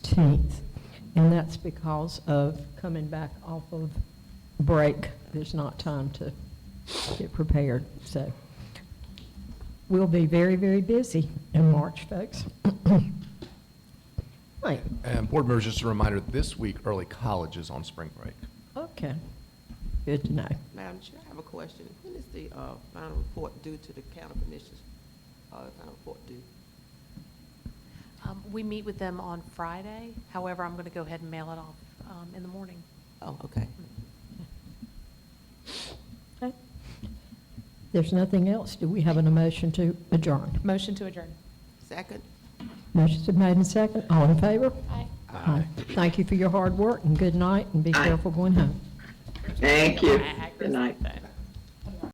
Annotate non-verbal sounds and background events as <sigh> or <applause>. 15th, and that's because of coming back off of break. There's not time to get prepared, so we'll be very, very busy in March, folks. <coughs> Right, And board members, just a reminder, this week, early college is on spring break. okay, good to know. Madam Chair, I have a question. When is the uh, final report due to the county commissioners? Uh, the Final report due? Um, We meet with them on Friday, however, I'm going to go ahead and mail it off um, in the morning. Oh, okay. Okay. There's nothing else, do we have an emotion to adjourn? Motion to adjourn. Second? Motion's been made and second, all in favor? Aye. Aye. Thank you for your hard work, and good night, and be careful going home. Thank you. Good night. Aye.